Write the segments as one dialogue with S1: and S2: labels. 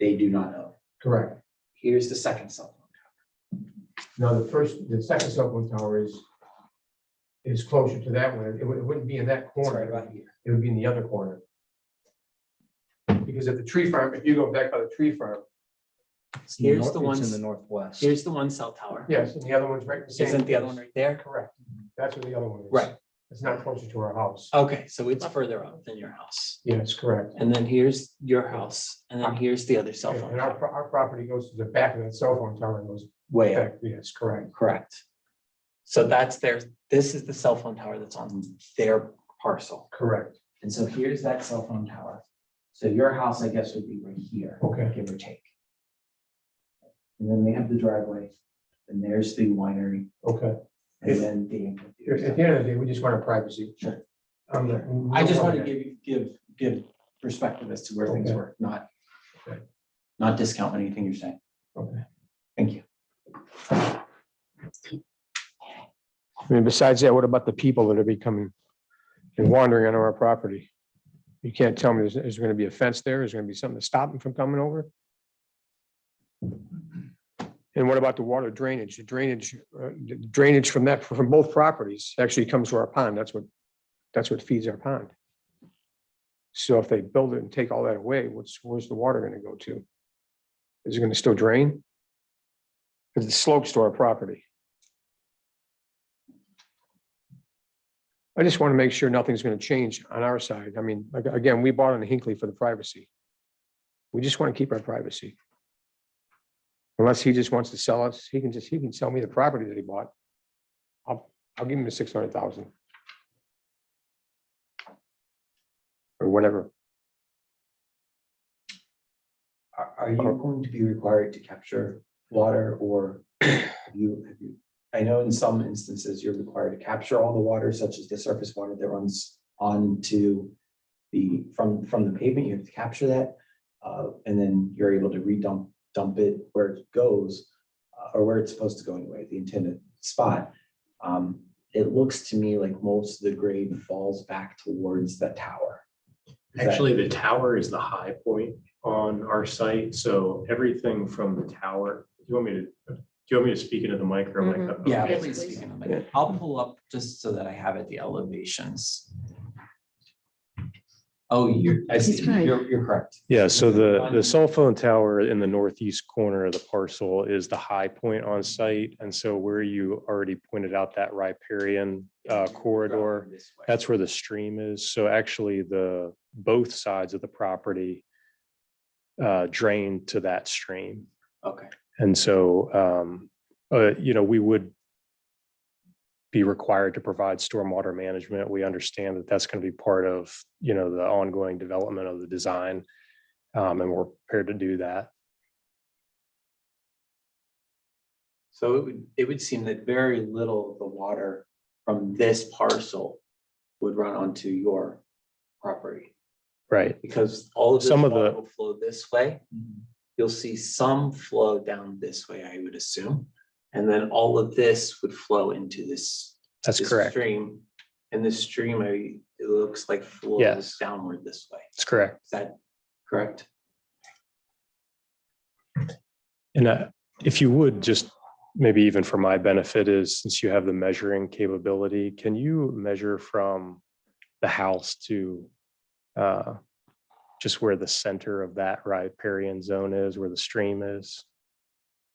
S1: they do not know.
S2: Correct.
S1: Here's the second cell phone.
S2: Now, the first, the second cell phone tower is, is closer to that one. It wou- it wouldn't be in that
S1: It's right
S2: corner.
S1: about here.
S2: It would be in the other corner. Because at the tree farm, if you go back by the tree farm,
S1: Here's the
S3: It's in the
S1: one,
S3: northwest.
S1: here's the one cell tower.
S2: yes, and the other one's right. in same
S1: Isn't the other one
S2: place.
S1: right there?
S2: Correct. That's where the other one is.
S1: Right.
S2: It's not closer to our house.
S1: Okay, so it's further up than your house.
S2: Yes, correct.
S1: And then here's your house, and then here's the other cell phone
S2: And our,
S1: tower.
S2: pro- our property goes to the back of that cell phone tower and goes
S1: Way up,
S2: back. Yes, correct.
S1: correct. So that's their, this is the cell phone tower that's on their parcel.
S2: Correct.
S1: And so here's that cell phone tower. So your house, I guess, would be right here,
S2: Okay.
S1: give or take. And then they have the driveway, and there's the winery,
S2: Okay.
S1: and then the.
S2: At the end of the day, we just want our privacy.
S1: Sure.
S2: I'm not-
S1: I just want to give you, give, give perspective as to where things
S2: Okay.
S1: were, not,
S2: Okay.
S1: not discount anything you're saying.
S2: Okay.
S1: Thank you.
S4: I mean, besides that, what about the people that are becoming and wandering onto our property? You can't tell me, is, is there gonna be a fence there? Is there gonna be something to stop them from coming over? And what about the water drainage? The drainage, uh, the drainage from that, from both properties actually comes to our pond. That's what, that's what feeds our pond. So if they build it and take all that away, what's, where's the water gonna go to? Is it gonna still drain? Because it slopes to our property. I just want to make sure nothing's going to change on our side. I mean, ag- again, we bought on Hinckley for the privacy. We just want to keep our privacy. Unless he just wants to sell us, he can just, he can sell me the property that he bought. I'll, I'll give him the six hundred thousand. Or whatever.
S1: Are, are you going to be required to capture water or have you, have you? I know in some instances you're required to capture all the water, such as the surface water that runs onto the, from, from the pavement, you have to capture that. Uh, and then you're able to redump, dump it where it goes, uh, or where it's supposed to go anyway, the intended spot. Um, it looks to me like most of the grade falls back towards the tower. Is that-
S5: Actually, the tower is the high point on our site, so everything from the tower, do you want me to, do you want me to speak into the mic or am I? cut off?
S1: Yeah,
S6: Yes,
S1: please
S6: please.
S1: speak in the mic. I'll pull up just so that I have it, the elevations. Oh, you're, I see,
S6: He's right.
S1: you're, you're correct.
S7: Yeah, so the,
S1: One-
S7: the cell phone tower in the northeast corner of the parcel is the high point on site. And so where you already pointed out that riparian uh, corridor,
S1: This way.
S7: that's where the stream is. So actually the, both sides of the property uh, drain to that stream.
S1: Okay,
S7: And so, um, uh, you know, we would be required to provide stormwater management. We understand that that's going to be part of, you know, the ongoing development of the design. Um, and we're prepared to do that.
S1: so it would, it would seem that very little of the water from this parcel would run onto your property.
S7: Right.
S1: Because all of this
S7: Some of
S1: water
S7: the-
S1: will flow this way. You'll see some flow down this way, I would assume. And then all of this would flow into this
S7: That's
S1: this
S7: correct.
S1: Stream, and this stream, I, it looks like flows
S7: Yes.
S1: downward this way.
S7: That's correct.
S1: Is that correct?
S7: And uh, if you would, just maybe even for my benefit is, since you have the measuring capability, can you measure from the house to uh, just where the center of that riparian zone is, where the stream is?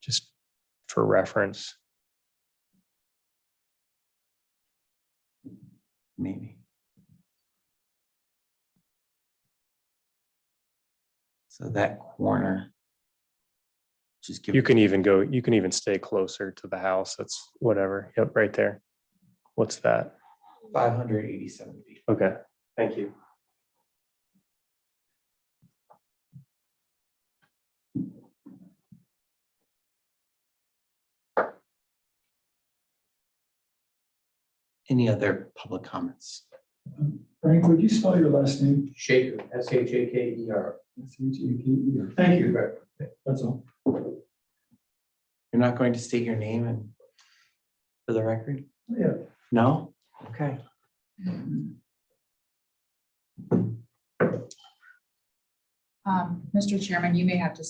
S7: Just for reference.
S1: Maybe. So that corner. Just give.
S7: You can even go, you can even stay closer to the house. That's whatever. Yep, right there. What's that?
S1: Five hundred eighty-seven feet.
S7: Okay.
S1: Thank you. Any other public comments?
S8: Frank, would you spell your last name?
S2: Shaker, S H A K E R.
S8: S H A K E R. Thank you, that's all.
S1: You're not going to state your name and for the record?
S8: Yeah.
S1: No? Okay.
S6: Um, Mr. Chairman, you may have to